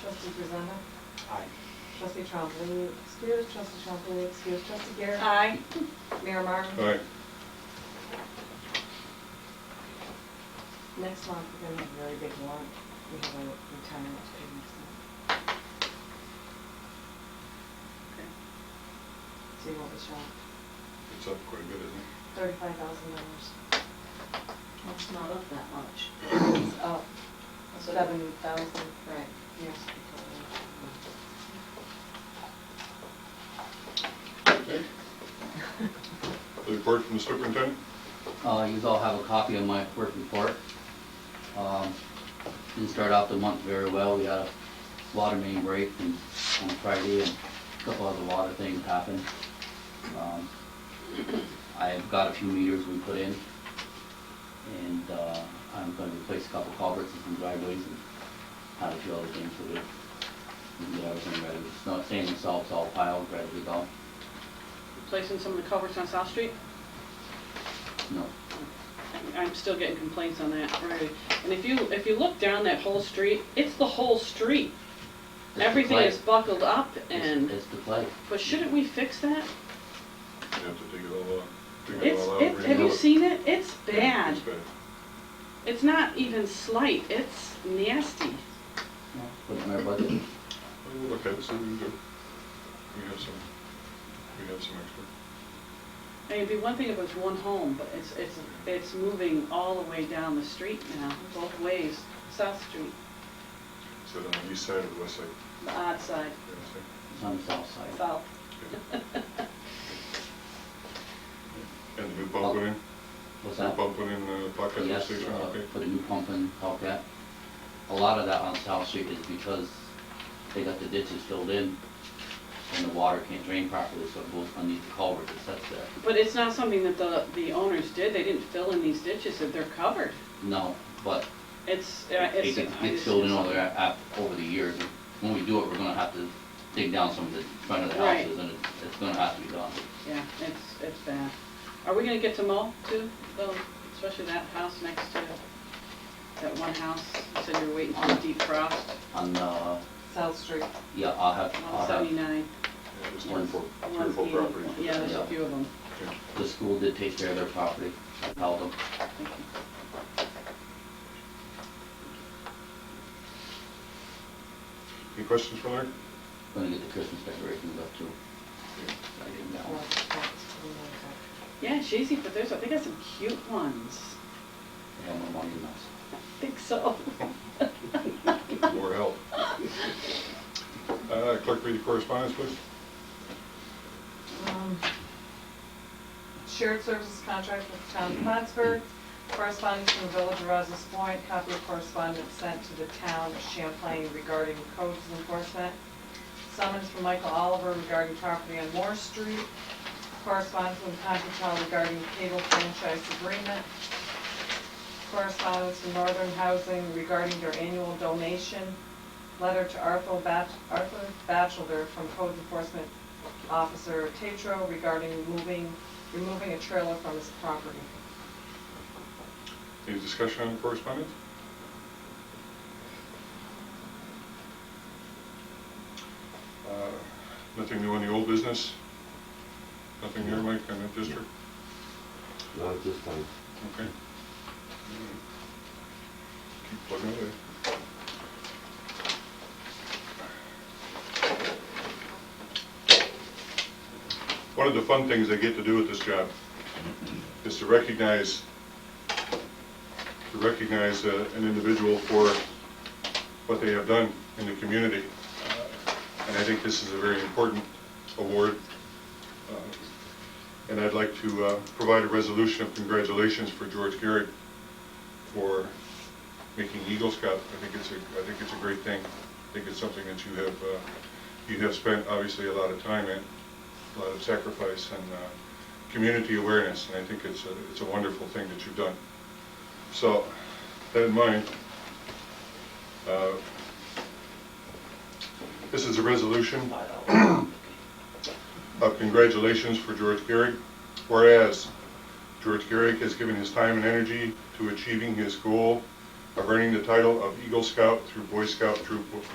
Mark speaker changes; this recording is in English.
Speaker 1: Trustee Grisenda?
Speaker 2: Aye.
Speaker 1: Trustee Trombley excused, trustee Trombley excused, trustee Garrett?
Speaker 3: Aye.
Speaker 1: Mayor Martin?
Speaker 4: Aye.
Speaker 1: Next month, we're gonna have a very big warrant. We have a retirement to pay next month, so you won't be shocked.
Speaker 4: It's up quite a bit, isn't
Speaker 1: Thirty-five thousand dollars.
Speaker 3: That's not up that much.
Speaker 1: It's up
Speaker 3: So-
Speaker 1: seven thousand
Speaker 3: Right.
Speaker 1: years.
Speaker 4: it? Okay. Report from the superintendent?
Speaker 5: Uh, You all have a copy of my work report. Um, Didn't start off the month very well. We had a water main break and- on Friday and a couple other water things happened. Um, I've got a few meters we put in. And uh, I'm gonna replace a couple culverts and some driveways and have a few other things to do. We can get everything ready. It's not saying the salt's all piled, ready to go.
Speaker 6: Replacing some of the culverts on South Street?
Speaker 5: No,
Speaker 6: I'm still getting complaints on that already. And if you, if you look down that whole street, it's the whole street.
Speaker 5: It's the
Speaker 6: Everything
Speaker 5: clay.
Speaker 6: is buckled up
Speaker 5: it's
Speaker 6: and,
Speaker 5: it's the play.
Speaker 6: but shouldn't we fix that?
Speaker 4: You have to dig it all out. dig it
Speaker 6: It's,
Speaker 4: all out,
Speaker 6: it's, have
Speaker 4: rebuild
Speaker 6: you
Speaker 4: it.
Speaker 6: seen it? It's bad.
Speaker 4: It's bad.
Speaker 6: It's not even slight, it's nasty.
Speaker 5: Put it in our budget.
Speaker 4: We'll look at it, Oh, see what we can do. We have some, we have some extra.
Speaker 6: I mean, it'd be one thing if it was one home, but it's, it's, it's moving all the way down the street now, both ways, South Street,
Speaker 4: Is that on the east side or the west side?
Speaker 6: the odd side,
Speaker 4: You know what
Speaker 5: It's on the south side.
Speaker 6: south.
Speaker 4: I'm saying? Okay. And the new pump
Speaker 6: Oh,
Speaker 4: went in?
Speaker 5: What's
Speaker 4: New
Speaker 5: that?
Speaker 4: pump went in, uh, pocket
Speaker 5: Yes,
Speaker 4: station,
Speaker 5: uh,
Speaker 4: okay?
Speaker 5: put a new pump in, all that. A lot of that on South Street is because they got the ditches filled in and the water can't drain properly, so it goes underneath the culvert that sits there.
Speaker 6: But it's not something that the, the owners did, they didn't fill in these ditches, that they're covered.
Speaker 5: No, but
Speaker 6: It's, uh,
Speaker 5: it
Speaker 6: it's.
Speaker 5: gets-
Speaker 6: I
Speaker 5: gets
Speaker 6: just-
Speaker 5: filled in over, there af- over the years. When we do it, we're gonna have to dig down some of the front of the
Speaker 6: Right.
Speaker 5: houses and it's, it's gonna have to be done.
Speaker 6: Yeah, it's, it's bad. Are we gonna get to mow too, though, especially that house next to, that one house, you said you were waiting for the deep frost,
Speaker 5: On, uh,
Speaker 1: South Street.
Speaker 5: yeah, I'll have, I'll
Speaker 6: one
Speaker 5: have,
Speaker 6: seventy-nine.
Speaker 4: Yeah, there's three or four, three or
Speaker 6: one
Speaker 4: four
Speaker 6: being-
Speaker 4: properties.
Speaker 6: Yeah, there's a
Speaker 5: Yeah.
Speaker 6: few of them,
Speaker 4: Yeah.
Speaker 5: the school did take care of their property, I held them.
Speaker 6: thank you.
Speaker 4: Any questions for Larry?
Speaker 5: Gonna get the Christmas decorations up too. I didn't know.
Speaker 6: Yeah, it's easy, but there's, I think there's some cute ones,
Speaker 5: I have my money now.
Speaker 6: I think so.
Speaker 4: More help. Uh, Clerk, read the correspondence, please.
Speaker 1: Um, Shared services contract with the town of Plattsburgh, correspondence from the village of Rouse's Point, copy of correspondence sent to the town of Champlain regarding codes enforcement, summons from Michael Oliver regarding property on Moore Street, correspondence from Conchetown regarding cable franchise agreement, correspondence from Northern Housing regarding their annual donation, letter to Arthur Bach- Arthur Batchelder from Code Enforcement Officer Tetro regarding moving, removing a trailer from his property.
Speaker 4: Any discussion on the correspondence? Uh, Nothing new on the old business? Nothing new, Mike, on that district?
Speaker 7: Not at this time.
Speaker 4: Okay. Keep plugging away. One of the fun things I get to do with this job is to recognize, to recognize uh, an individual for what they have done in the community. And I think this is a very important award. Uh, and I'd like to uh, provide a resolution of congratulations for George Garrett for making Eagle Scout. I think it's a, I think it's a great thing. I think it's something that you have, uh, you have spent obviously a lot of time in, a lot of sacrifice and uh, community awareness, and I think it's a, it's a wonderful thing that you've done. So, that in mind, uh, this is a resolution of congratulations for George Garrick, whereas George Garrick has given his time and energy to achieving his goal of earning the title of Eagle Scout through Boy Scout Troop